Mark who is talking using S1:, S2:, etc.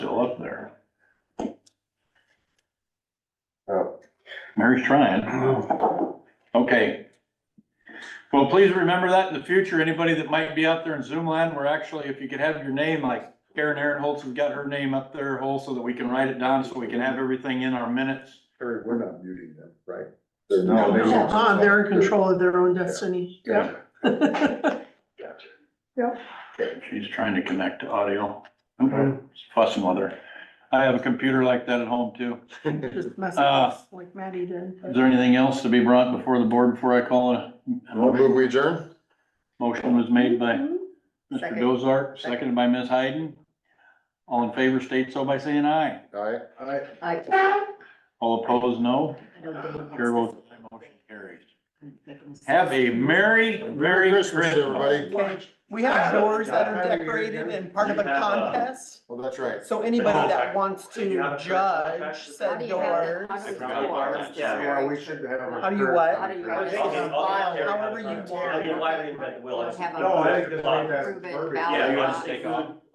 S1: Mary's trying. Okay. Well, please remember that in the future, anybody that might be out there in Zoom land, we're actually, if you could have your name, like Karen Aaron Holtz has got her name up there, Holtz, so that we can write it down, so we can have everything in our minutes.
S2: Or we're not muting them, right?
S1: No, they won't.
S3: Ah, they're in control of their own destiny. Yep.
S2: Gotcha, gotcha.
S1: She's trying to connect to audio. It's Fussing with her. I have a computer like that at home too.
S3: Just mess
S1: Uh,
S3: up like Maddie did.
S1: Is there anything else to be brought before the board before I call it? a
S2: Well,
S1: motion?
S2: move we adjourn?
S1: Motion was made by
S3: Mm-hmm.
S1: Mr.
S4: Second.
S1: Dozart,
S4: Second.
S1: seconded by Ms. Hayden. All in favor state so by saying aye.
S2: Aye. Aye.
S4: I.
S1: All opposed, no. Chair votes aye, motion carries. Have a merry, merry
S2: Merry Christmas,
S1: Christmas.
S2: everybody.
S5: Okay,
S6: We have doors that are decorated and part of a contest,
S2: Well, that's right.
S6: so anybody that wants to judge said doors,
S4: Yeah, we
S2: should
S6: how do you what?
S4: do you?
S6: However you want.
S4: We'll have a-
S5: No, I think the way that
S4: Prove it,
S5: verbiage-
S4: valid.
S5: Yeah,
S4: Yeah,
S5: you
S4: you
S5: want
S4: just
S5: to take
S4: take
S5: off.